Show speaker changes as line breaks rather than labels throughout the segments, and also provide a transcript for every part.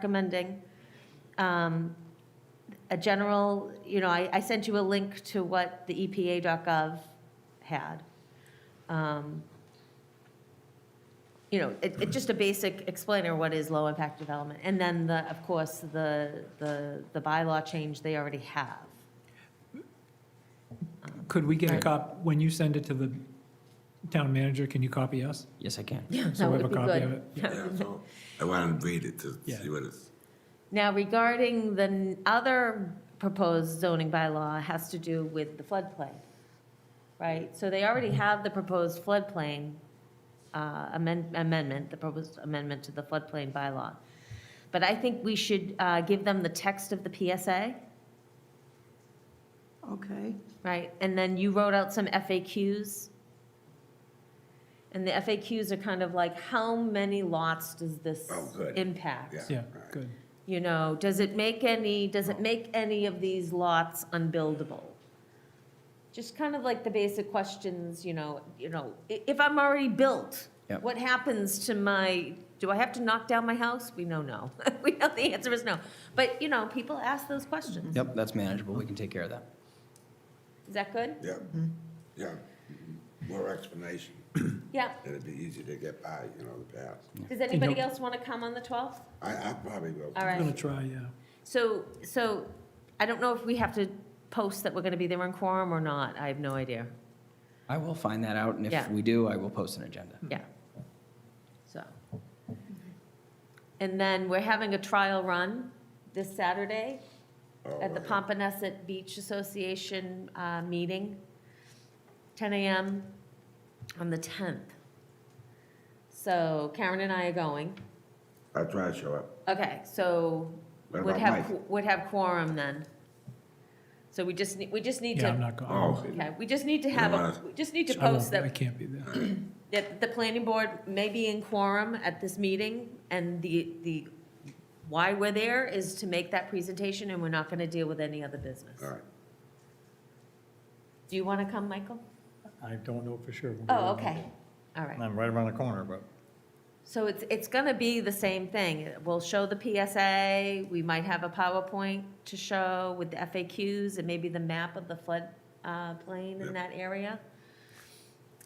recommending. Um, A general, you know, I, I sent you a link to what the E EPA.gov had. Um, You know, it, it's just a basic explainer what is low-impact development. And then the, of course, the, the, the bylaw change they already have.
Could we get a cop, when you send it to the town manager, can you copy us?
Yes, I can.
Yeah,
So we have a copy of it.
Yeah, so I want to read it to
Yeah.
see what it's,
Now regarding the n- other proposed zoning bylaw has to do with the floodplain, right? So they already
Mm-hmm.
have the proposed floodplain uh, amend- amendment, the proposed amendment to the floodplain bylaw. But I think we should uh, give them the text of the PSA,
Okay,
right? And then you wrote out some FAQs. And the FAQs are kind of like, how many lots does this
Oh, good.
impact?
Yeah.
Yeah, good.
You know, does it make any, does it make any of these lots unbuildable? Just kind of like the basic questions, you know, you know, i- if I'm already built,
Yep.
what happens to my, do I have to knock down my house? We know no. We know the answer is no. But, you know, people ask those questions.
Yep, that's manageable. We can take care of that.
Is that good?
yeah,
Mm-hmm.
yeah. mm-hmm. More explanation,
Yeah.
it'd be easy to get by, you know, the past.
Does anybody
know-
else want to come on the 12th?
I, I probably will.
All
I'm gonna
right.
try, yeah.
So, so I don't know if we have to post that we're going to be there in quorum or not. I have no idea.
I will find that out, and
Yeah.
if we do, I will post an agenda.
Yeah. So. And then we're having a trial run this Saturday
Oh,
at the
okay.
Pompanesset Beach Association uh, meeting, 10 AM on the 10th. So Karen and I are going.
I'll try to show up.
Okay, so
What
would
about
have,
Mike?
would have quorum then. So we just, need we just need
Yeah, I'm
to,
not
Oh,
going.
okay, we just need to
You
have, a
wanna-
we just need to
I
post
won't,
that
I can't be there.
that the planning board may be in quorum at this meeting, and the, the, why we're there is to make that presentation, and we're not gonna deal with any other business.
all right.
Do you wanna come, Michael?
I don't know for sure.
Oh, okay, all
And
right.
I'm right around the corner, but
So it's, it's gonna be the same thing. We'll show the PSA, we might have a PowerPoint to show with the FAQs and maybe the map of the flood, uh, plain in
Yep.
that area.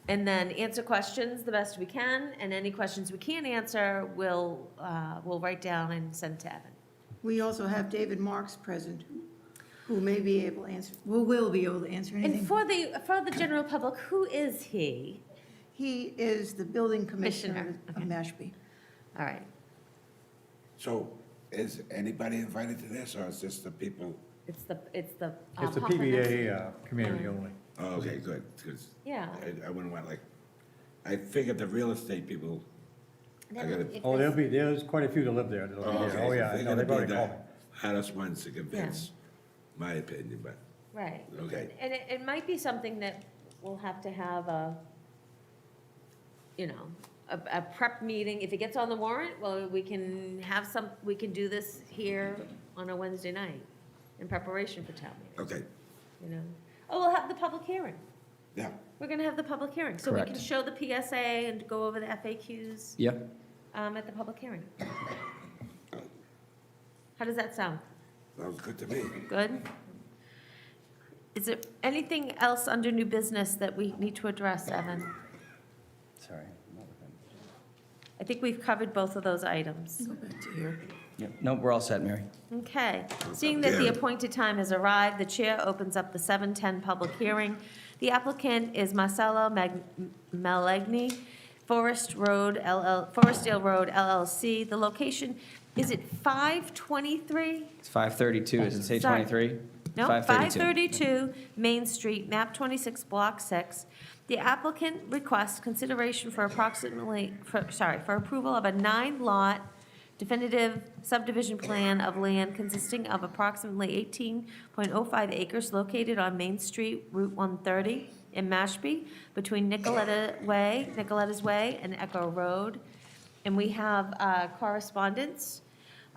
And then answer questions the best we can, and any questions we can't answer, we'll, uh, we'll write down and send to Evan.
we also have David Marks present, who may be able to answer, who will be able to answer
And
anything.
for the, for the general public, who is he?
He is the building commissioner
Commissioner,
of Mashpee.
All right,
So is anybody invited to this or is just the people?
it's the, it's the. uh,
it's a
Papa Nut-
PBA uh, community only.
Oh, okay, good, because
Yeah.
I, I wouldn't want like, I figured the real estate people, I gotta-
If
Oh, there'll
it's-
be, there's quite a few that live there. That'll
oh,
be
okay.
there. Oh, yeah,
they're
I know,
gonna
they've
be
already
the
called me.
Hardest ones to convince, my opinion, but,
Right.
okay.
And it, it might be something that we'll have to have a, you know, a, a prep meeting. If it gets on the warrant, well, we can have some, we can do this here on a Wednesday night in preparation for town meeting,
Okay,
you know? Oh, we'll have the public hearing.
yeah,
We're gonna have the public hearing, so we can
Correct.
show the PSA and go over the FAQs.
Yeah,
um, at the public hearing. How does that sound?
that was good to me.
Good? Is there anything else under new business that we need to address, Evan?
sorry.
I think we've covered both of those items.
Go back to here.
Yep, no, we're all set, Mary.
Okay. Seeing that the
Yeah.
appointed time has arrived, the chair opens up the 7:10 public hearing. The applicant is Marcelo Mag- Malegny, Forest Road LL, Forestdale Road LLC. The location, is it 523?
It's 5:32, is it say
Sorry.
23?
No,
5:32.
532 Main Street, map 26, block 6. The applicant requests consideration for approximately, for- sorry, for approval of a nine-lot definitive subdivision plan of land consisting of approximately 18.05 acres located on Main Street, Route 130 in Mashpee, between Nicoletta Way, Nicoletta's Way and Echo Road. And we have uh, correspondence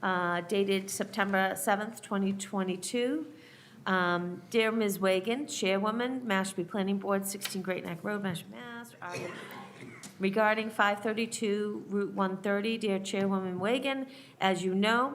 uh, dated September 7th, 2022. Um, Dear Ms. Wagon, Chairwoman, Mashpee Planning Board, 16 Great Neck Road, Mashpee, Mass. Article Regarding 532 Route 130, dear Chairwoman Wagon, as you know,